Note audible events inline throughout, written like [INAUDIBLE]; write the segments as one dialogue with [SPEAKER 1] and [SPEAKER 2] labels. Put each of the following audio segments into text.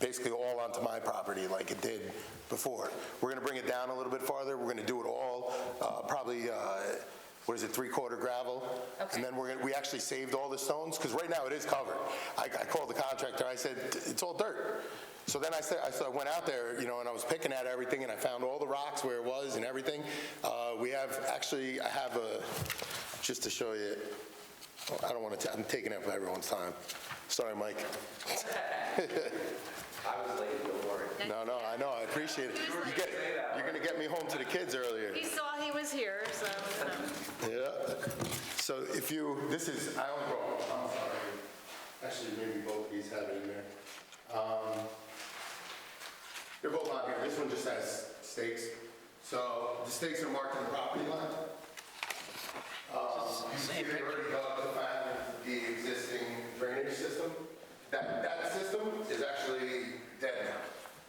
[SPEAKER 1] basically all onto my property like it did before. We're going to bring it down a little bit farther. We're going to do it all, uh, probably, uh, what is it, three-quarter gravel?
[SPEAKER 2] Okay.
[SPEAKER 1] And then we're going, to we actually saved all the stones, because right now it is covered. I I called the contractor, I said, it's all dirt. So then I said, I said- I went out there, you know, and I was picking at everything, and I found all the rocks where it was and everything. Uh, We have, actually, I have a, just to show you, I don't want to, I'm taking up everyone's time. Sorry, Mike. [LAUGHS] No, no, I know, I appreciate it. You get, you're gonna get me home to the kids earlier.
[SPEAKER 2] He saw he was here, so. um,
[SPEAKER 1] Yeah. So if you, this is, I only brought, I'm sorry. Actually, maybe both of these have it in there. Um, They're both on here. This one just has stakes. So the stakes are marked on the property line. Um, You see, they already dug the plan of the existing drainage system. That, that system is actually dead now.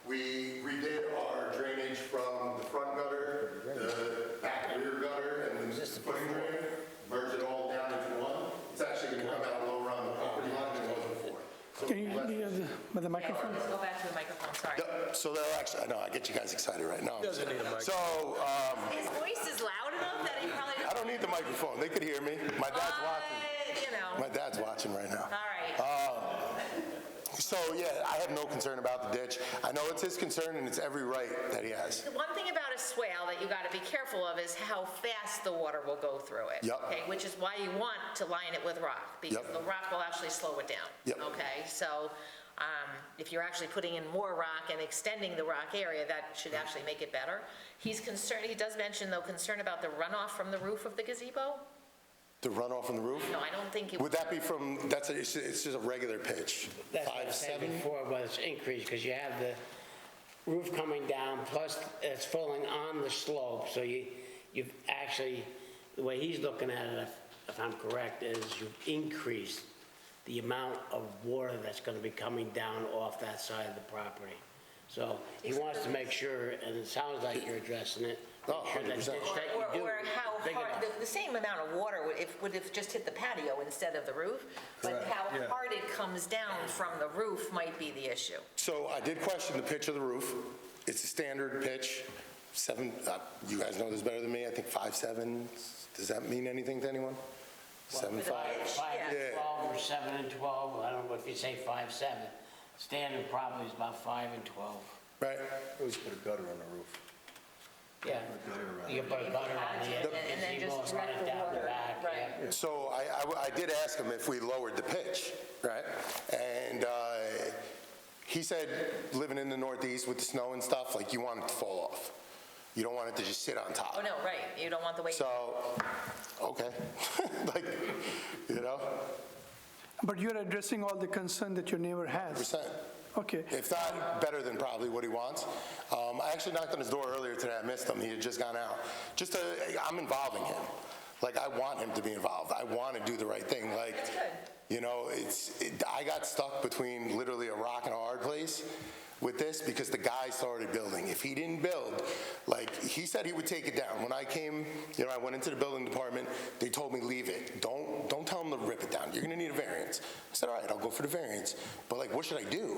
[SPEAKER 1] We redid our drainage from the front gutter, the back rear gutter, and the footing drain, merged it all down into one. It's actually going to come out lower on the property line than it was before. So
[SPEAKER 3] Can you, do you have the, with the microphone?
[SPEAKER 2] Let's go back to the microphone, sorry.
[SPEAKER 1] Yep, So they'll actually, I know, I get you guys excited right now. Doesn't need a mic. So, um,
[SPEAKER 2] His voice is loud enough that he
[SPEAKER 1] [LAUGHS]
[SPEAKER 2] probably.
[SPEAKER 1] I don't need the microphone, they could hear me. My dad's watching,
[SPEAKER 2] Uh, You know,
[SPEAKER 1] my dad's watching right Uh. now.
[SPEAKER 2] all right.
[SPEAKER 1] So, yeah, I have no concern about the ditch. I know it's his concern and it's every right that he has.
[SPEAKER 2] The One thing about a swale that you gotta be careful of is how fast the water will go through it.
[SPEAKER 1] Yep.
[SPEAKER 2] Okay, which is why you want to line it with rock, because
[SPEAKER 1] Yep.
[SPEAKER 2] the rock will actually slow it down.
[SPEAKER 1] Yep.
[SPEAKER 2] Okay, so, um, if you're actually putting in more rock and extending the rock area, that should actually make it better. He's concerned, he does mention though concern about the runoff from the roof of the gazebo?
[SPEAKER 1] The runoff from the roof?
[SPEAKER 2] No, I don't think it.
[SPEAKER 1] Would that be from, that's, a- it's it's just a regular pitch?
[SPEAKER 4] That's what I
[SPEAKER 1] Five,
[SPEAKER 4] was saying
[SPEAKER 1] seven?
[SPEAKER 4] before was increased, because you have the roof coming down, plus it's falling on the slope, so you, you've actually, the way he's looking at it, if- if I'm correct, is you've increased the amount of water that's gonna be coming down off that side of the property. So he wants to make sure, and it sounds like you're addressing it.
[SPEAKER 1] Oh,
[SPEAKER 4] make sure that
[SPEAKER 1] 100%.
[SPEAKER 4] ditch that you
[SPEAKER 2] Or,
[SPEAKER 4] do
[SPEAKER 2] or
[SPEAKER 4] is
[SPEAKER 2] how
[SPEAKER 4] big
[SPEAKER 2] hard,
[SPEAKER 4] enough.
[SPEAKER 2] the, the same amount of water would, if, would have just hit the patio instead of the roof, but how hard it comes down from the roof might be the issue.
[SPEAKER 1] So I did question the pitch of the roof. It's a standard pitch, seven, uh, you guys know this better than me, I think five, seven. Does that mean anything to anyone? Seven, five?
[SPEAKER 4] Five
[SPEAKER 1] Yeah.
[SPEAKER 4] and 12, or seven and 12, I don't know if you say five, seven. Standard probably is about five and 12.
[SPEAKER 1] Right.
[SPEAKER 5] Always put a gutter on the roof.
[SPEAKER 4] Yeah. You put a butter on the end,
[SPEAKER 2] And then
[SPEAKER 4] and
[SPEAKER 2] just
[SPEAKER 4] gazebo's
[SPEAKER 2] direct
[SPEAKER 4] running
[SPEAKER 2] the
[SPEAKER 4] down the
[SPEAKER 2] water,
[SPEAKER 4] back,
[SPEAKER 2] right.
[SPEAKER 4] yeah.
[SPEAKER 1] So I- I, w- I did ask him if we lowered the pitch, right? And uh, he said, living in the Northeast with the snow and stuff, like, you want it to fall off. You don't want it to just sit on
[SPEAKER 2] Oh,
[SPEAKER 1] top.
[SPEAKER 2] no, right, you don't want the weight.
[SPEAKER 1] So, okay, [LAUGHS] like, you know,
[SPEAKER 3] But you're addressing all the concern that your neighbor has.
[SPEAKER 1] percent.
[SPEAKER 3] Okay.
[SPEAKER 1] If not, better than probably what he wants. Um, I actually knocked on his door earlier today, I missed him, he had just gone out. Just, uh, I'm involving him. Like, I want him to be involved, I want to do the right thing, like.
[SPEAKER 2] That's good.
[SPEAKER 1] You know, it's, it- I got stuck between literally a rock and a hard place with this because the guy started building. If he didn't build, like, he said he would take it down. When I came, you know, I went into the building department, they told me, leave it. Don't, don't tell him to rip it down. You're gonna need a variance. I said, all right, I'll go for the variance. But like, what should I do?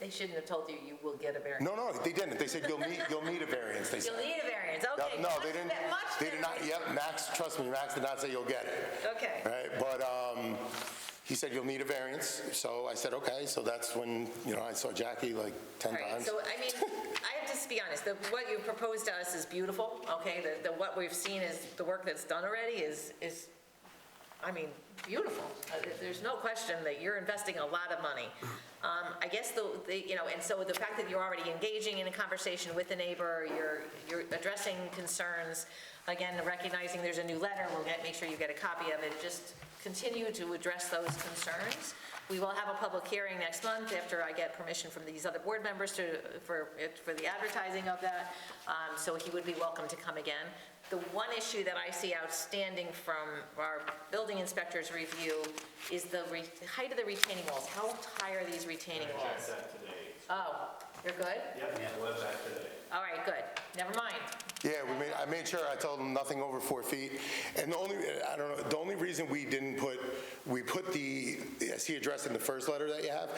[SPEAKER 2] They shouldn't have told you you will get a variance.
[SPEAKER 1] No, no, they didn't. They said, you'll need, you'll need a variance, they
[SPEAKER 2] You'll
[SPEAKER 1] said.
[SPEAKER 2] need a variance,
[SPEAKER 1] No,
[SPEAKER 2] [LAUGHS] okay.
[SPEAKER 1] No,
[SPEAKER 2] much
[SPEAKER 1] they
[SPEAKER 2] be-
[SPEAKER 1] didn't,
[SPEAKER 2] much
[SPEAKER 1] they did not,
[SPEAKER 2] better.
[SPEAKER 1] yep, Max, trust me, Max did not say you'll get it.
[SPEAKER 2] Okay,
[SPEAKER 1] right? But um, he said, you'll need a variance. So I said, okay, so that's when, you know, I saw Jackie like 10
[SPEAKER 2] all right,
[SPEAKER 1] times.
[SPEAKER 2] so, I mean, I have to just be honest, the, what you proposed to us is beautiful, okay? The, the, what we've seen is, the work that's done already is, is, I mean, beautiful. Uh, there- There's no question that you're investing a lot of money. Um, I guess the, the- you know, and so the fact that you're already engaging in a conversation with the neighbor, you're, you're addressing concerns, again, recognizing there's a new letter, we'll get, make sure you get a copy of it, just continue to address those concerns. We will have a public hearing next month after I get permission from these other board members to, for, it- for the advertising of that, Um, so he would be welcome to come again. The one issue that I see outstanding from our building inspector's review is the re- the height of the retaining walls. How high are these retaining walls? Oh, you're good? All right, good. Never mind.
[SPEAKER 1] Yeah, we made, I made sure, I told him nothing over four feet. And the only, I don't know, the only reason we didn't put, we put the, as he addressed in the first letter that you have,